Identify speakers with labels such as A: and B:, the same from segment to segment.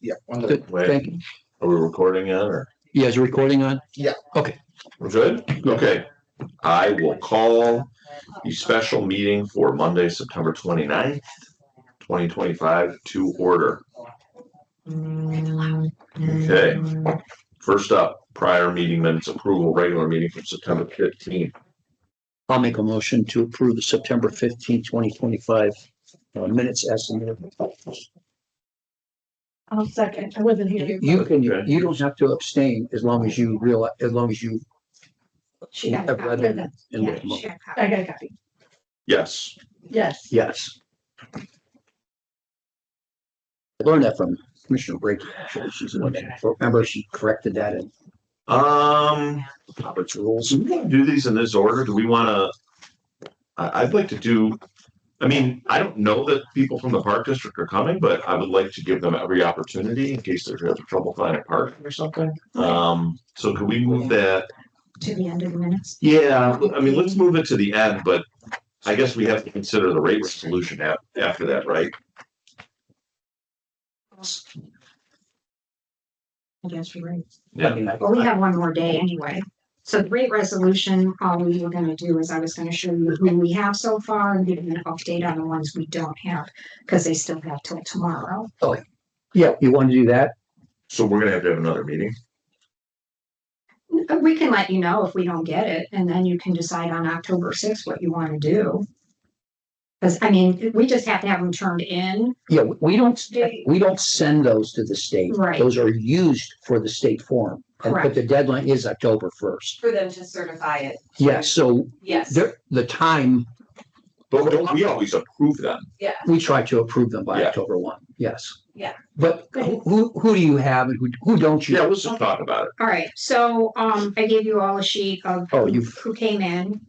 A: Yeah. one
B: Good,
A: minute.
B: thank you.
C: Are we recording yet or?
B: Yeah, is the recording on?
C: We're good? Okay. I will call the special meeting for Monday, September 29th, twenty twenty-five to order. Okay. First up, prior meeting minutes approval, regular meeting from September fifteenth.
B: I'll make a motion to approve the September fifteenth, twenty twenty-five uh, minutes as submitted.
D: I'll second. I wasn't here.
B: You can, you don't have to abstain as long as you realize, as long as you
E: She got. a
B: have read
E: copy of
B: it.
E: the-
B: and
E: Yeah,
B: looked them up.
E: she got a copy.
D: I got a copy.
C: Yes,
D: Yes.
B: Yes. I learned that from Commissioner Brady. actually. She's the one that, remember she corrected that and
C: um, Robert's rules. Do we wanna Do these in this order? Do we wanna? I, I'd like to do, I mean, I don't know that people from the park district are coming, but I would like to give them every opportunity in case they're having trouble finding parking or something. Um, so could we move that
E: To the end of the minutes.
C: Yeah, I mean, let's move it to the end, but I guess we have to consider the rate resolution a- after that, right?
E: I guess you're right.
C: Yeah,
E: Well, we have one more day anyway. So the rate resolution, all we were gonna do is I was gonna show you who we have so far and give you an update on the ones we don't have, because they still have till tomorrow.
B: yeah, you want to do that?
C: so we're gonna have to have another meeting.
E: Uh, We can let you know if we don't get it, and then you can decide on October sixth what you wanna do. Because, I mean, we just have to have them turned in.
B: Yeah, we- we don't,
E: They-
B: we don't send those to the state.
E: Right.
B: Those are used for the state form. And but
E: Correct.
B: the deadline is October first.
F: For them to certify it,
B: Yeah, so
F: yes,
B: there, the time,
C: But don't we always approve them?
F: yeah,
B: we try to approve them by
C: Yeah.
B: October one, yes.
F: Yeah.
B: But who- who, who do you have and who, who don't you?
C: Yeah, let's just talk about it.
E: All right, so, um, I gave you all a sheet of
B: Oh, you've-
E: who came in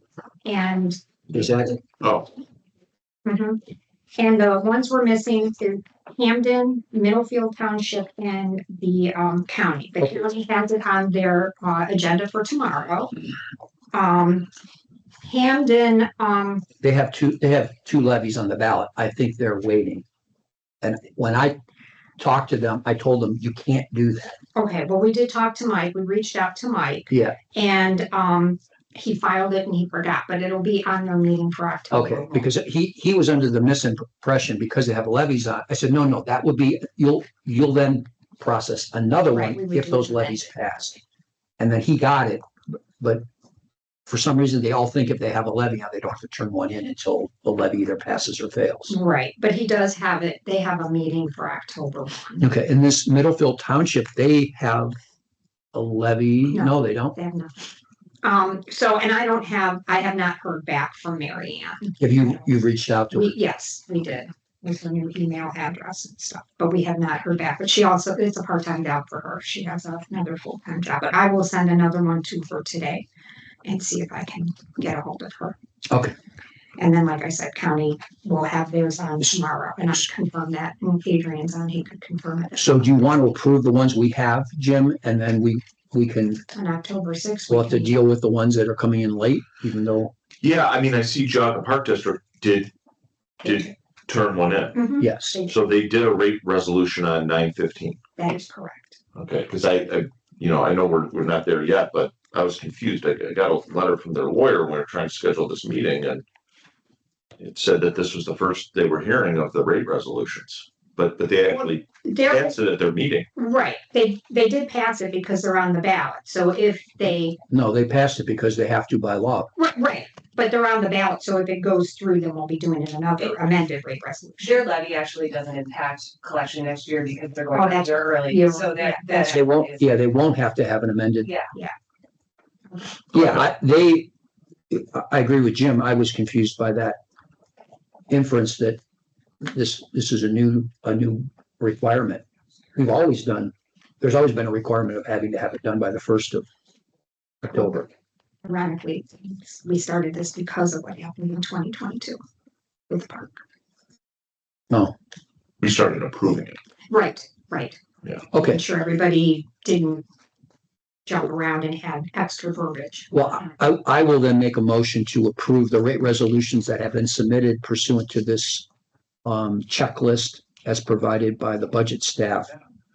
E: and
B: Is that,
C: Oh,
E: Mhm. And the ones we're missing is Hamden, Middlefield Township and the um county. The county has it on their uh agenda for tomorrow. Um, Hamden, um,
B: they have two, they have two levies on the ballot. I think they're waiting. And when I talked to them, I told them, you can't do that.
E: okay, well, we did talk to Mike. We reached out to Mike.
B: Yeah.
E: And um, he filed it and he forgot, but it'll be on their meeting for October.
B: Okay, because he, he was under the misimpression because they have levies on. I said, no, no, that would be, you'll, you'll then process another
E: Right, we
B: one
E: would
B: if
E: do
B: those
E: that.
B: levies pass. And then he got it, but for some reason, they all think if they have a levy, out, they don't have to turn one in until the levy either passes or fails.
E: Right, but he does have it. They have a meeting for October.
B: Okay, in this Middlefield Township, they have a levy.
E: No.
B: No, they don't.
E: They have nothing. Um, so, and I don't have, I have not heard back from Mary Ann.
B: Have you, you've reached out to
E: We,
B: it?
E: yes, we did, with her new email address and stuff, but we have not heard back, but she also, it's a part-time job for her, she has another full-time job, but I will send another one to her today. And see if I can get a hold of her.
B: Okay.
E: And then, like I said, county will have theirs on tomorrow, and I should confirm that, and Adrian's on, he could confirm it
B: So do you want to approve the ones we have, Jim? And then we, we can,
E: on October sixth.
B: we'll have to deal with the ones that are coming in late, even though
C: yeah, I mean, I see Jogga Park District did, did turn one in.
E: Mhm,
B: Yes,
C: So they did a rate resolution on nine fifteen.
E: that is correct.
C: Okay, because I, I, you know, I know we're, we're not there yet, but I was confused. I, I got a letter from their lawyer when we were trying to schedule this meeting and it said that this was the first they were hearing of the rate resolutions, but, but they actually
E: There
C: passed it at their meeting.
E: Right, they, they did pass it because they're on the ballot, so if they,
B: no, they passed it because they have to by law.
E: right, right, but they're on the ballot, so if it goes through, then we'll be doing it another amended rate resolution.
F: their levy actually doesn't impact collection next year because they're going
E: Oh, that's-
F: after early,
E: you're-
F: so that.
E: yeah.
F: that
B: They won't,
F: is-
B: yeah, they won't have to have an amended.
F: Yeah.
E: Yeah.
B: Yeah, I, they, I- I agree with Jim. I was confused by that inference that this, this is a new, a new requirement. We've always done, there's always been a requirement of having to have it done by the first of October.
E: Ironically, we started this because of what happened in twenty twenty-two with Park.
B: No,
C: We started approving it.
E: Right, right,
B: okay.
E: I'm sure everybody didn't jump around and had extra verbiage.
B: Well, I, I will then make a motion to approve the rate resolutions that have been submitted pursuant to this um, checklist as provided by the budget staff